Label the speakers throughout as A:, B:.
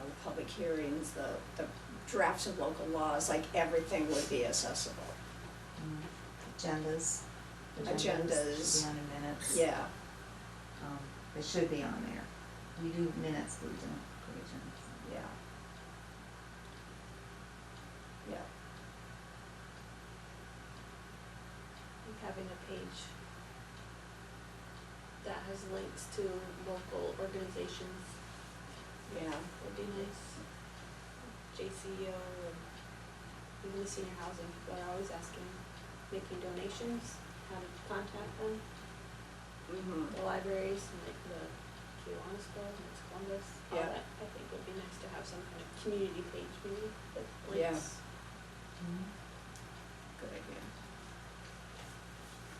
A: um, public hearings, the, the drafts of local laws, like everything would be accessible.
B: um, agendas.
A: Agendas.
B: Should be on the minutes.
A: Yeah,
B: Um, They should be on there. We do minutes, but we don't put agendas.
A: yeah. Yeah,
C: of having a page that has links to local organizations
A: yeah,
C: would be nice. JCO E and even the senior housing people are always asking, making donations, how to contact them,
A: mhm,
C: the libraries and like the Kiwanis Club and it's Columbus, all
A: Yeah.
C: that. I think would be nice to have some kind of community page maybe with
A: Yeah.
C: links.
A: good idea.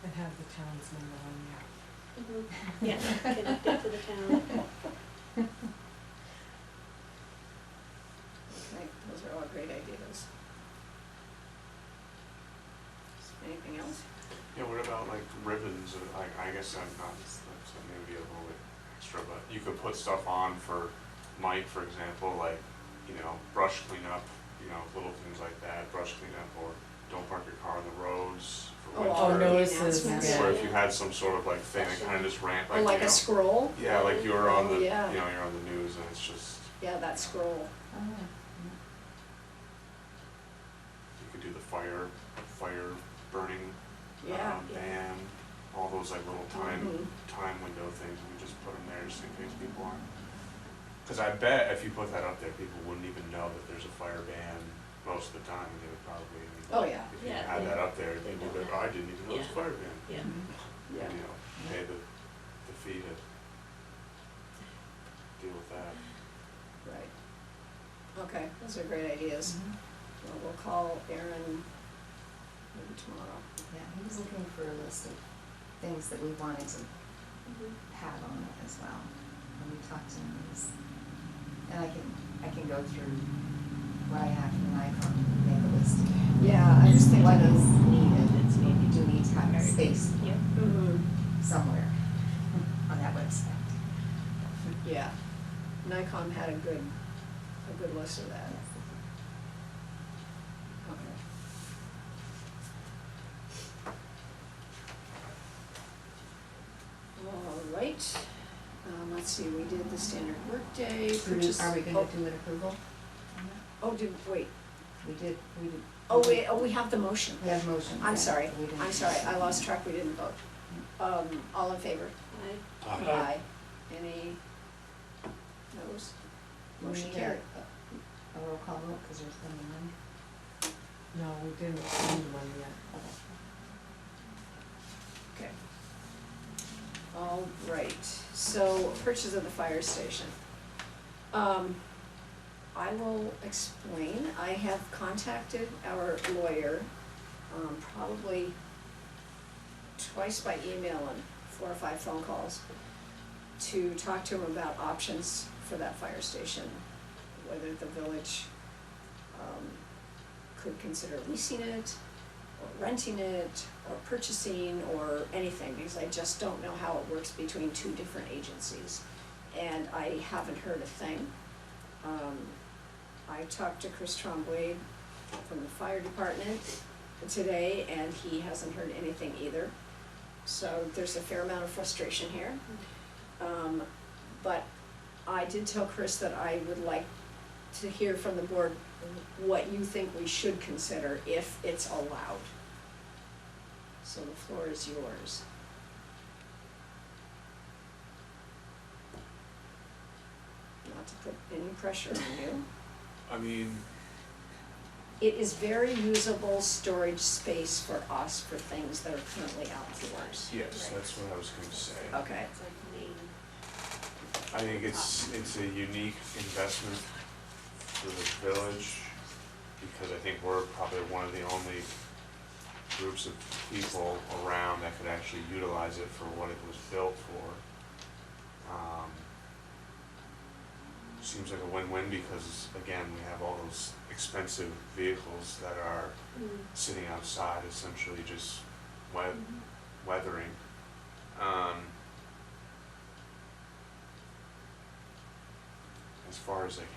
D: And have the town's number on there.
C: Mhm. Yeah, connected to the town.
A: Okay, those are all great ideas. Anything else?
E: Yeah, what about like ribbons, or like, I guess I'm not, that's maybe a little bit extra, but you could put stuff on for Mike, for example, like, you know, brush cleanup, you know, little things like that, brush cleanup, or don't park your car on the roads for
A: Oh,
E: winter.
A: all
D: Oh, notices,
A: announcements.
D: yeah.
E: Or if you had some sort of like thing that kind of just ran,
A: Or
E: like,
A: Oh, like
E: you
A: a
E: know,
A: scroll?
E: yeah, like you're on the, you
A: Yeah.
E: know, you're on the news and it's just,
A: Yeah, that scroll.
B: Oh, yeah.
E: you could do the fire, fire burning,
A: Yeah.
E: um, ban, all those like little time
A: Mhm.
E: time window things, we just put them there just in case people aren't. Cause I bet if you put that up there, people wouldn't even know that there's a fire ban most of the time, they would probably, I mean,
A: Oh, yeah,
E: if you
C: Yeah,
E: had
C: they-
E: that up there,
C: they
E: people
C: don't
E: would,
C: know.
E: I didn't even know it's a
C: Yeah.
E: fire ban,
C: Yeah.
B: Mm-hmm.
E: you
A: yeah.
E: know, pay the, the fee to deal with that.
A: Right. Okay, those are great ideas. Well, we'll call Aaron maybe tomorrow.
B: Yeah, he was looking for a list of things that we wanted to
C: Mhm.
B: have on it as well, when we talked to him. he's- And I can, I can go through what I have from Nikon, and make a list of
A: Yeah, I was thinking
B: what
A: of,
B: is needed.
C: It's
B: You
C: maybe
B: do need to have space
C: Yep.
A: mhm,
B: somewhere on that website.
A: yeah. Nikon had a good, a good list of that. Okay. All right, um, let's see, we did the standard workday, purchase.
B: Are we
A: oh,
B: gonna do an approval? on that?
A: Oh, did, wait,
B: We did, we did.
A: oh, wait, oh, we have the motion.
B: We have motion.
A: I'm sorry,
B: We didn't-
A: I'm sorry, I lost track, we didn't vote. Um, all in favor?
C: I
A: Aye. Any noes?
B: We
A: Motion
B: need a-
A: carried.
B: A roll call vote, because there's only one.
D: No, we didn't send one yet.
A: Okay. All right, so purchase of the fire station. Um, I will explain, I have contacted our lawyer, um, probably twice by email and four or five phone calls to talk to him about options for that fire station, whether the village, um, could consider leasing it, or renting it, or purchasing, or anything, because I just don't know how it works between two different agencies. And I haven't heard a thing. Um, I talked to Chris Trombley from the fire department today, and he hasn't heard anything either. So there's a fair amount of frustration here. Um, but I did tell Chris that I would like to hear from the board what you think we should consider if it's allowed. So the floor is yours. Not to put any pressure on you.
F: I mean,
A: It is very usable storage space for us for things that are currently outdoors.
E: Yes, that's what I was gonna say.
A: Okay,
C: It's like main.
E: I think it's, it's a unique investment for the village, because I think we're probably one of the only groups of people around that could actually utilize it for what it was built for. Um, Seems like a win-win, because again, we have all those expensive vehicles that are
C: Mm.
E: sitting outside essentially just wet, weathering. Um, as far as like